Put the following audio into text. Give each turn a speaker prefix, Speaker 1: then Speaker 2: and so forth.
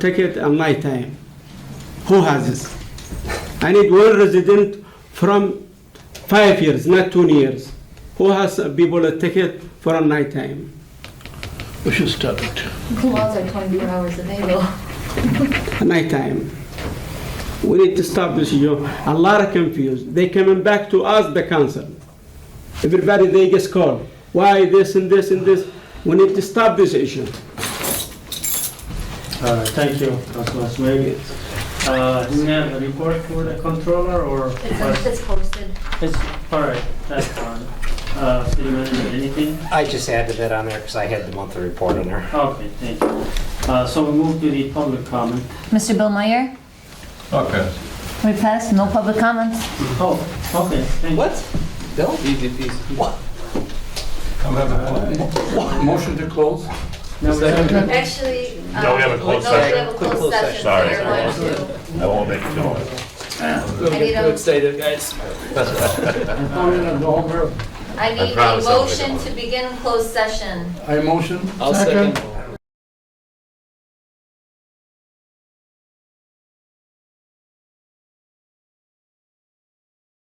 Speaker 1: take it on my time. Who has this? I need one resident from five years, not two years. Who has people a ticket for a night time?
Speaker 2: We should stop it.
Speaker 3: Laws are 24 hours a day though.
Speaker 1: nighttime. We need to stop this issue. A lot are confused. They coming back to us, the council. Everybody, they just call. Why this and this and this? We need to stop this issue.
Speaker 4: Uh, Thank you, Councilman Smagy. Uh, Do we have a report for the controller or?
Speaker 3: It's it's posted.
Speaker 4: It's, all right, that's fine. Uh, City manager, anything?
Speaker 5: I just added that on there because I had the monthly report on there.
Speaker 4: Okay, thank you. Uh, So we move to the public comment.
Speaker 6: Mr. Bill Meyer,
Speaker 7: Okay.
Speaker 6: we pass, no public comments.
Speaker 4: Oh, okay, thank you.
Speaker 5: Bill?
Speaker 7: I'm having fun.
Speaker 2: Motion to close?
Speaker 4: Now we have-
Speaker 3: Actually. um,
Speaker 8: No, we have a closed
Speaker 3: no, we
Speaker 8: session.
Speaker 3: have a closed session.
Speaker 8: Sorry.
Speaker 3: so you're going
Speaker 8: I won't make it too long.
Speaker 3: to- I need a,
Speaker 2: I'm gonna go over.
Speaker 3: I need a
Speaker 8: promise I'll make it
Speaker 3: motion to begin closed session.
Speaker 2: I motion.
Speaker 9: I'll second.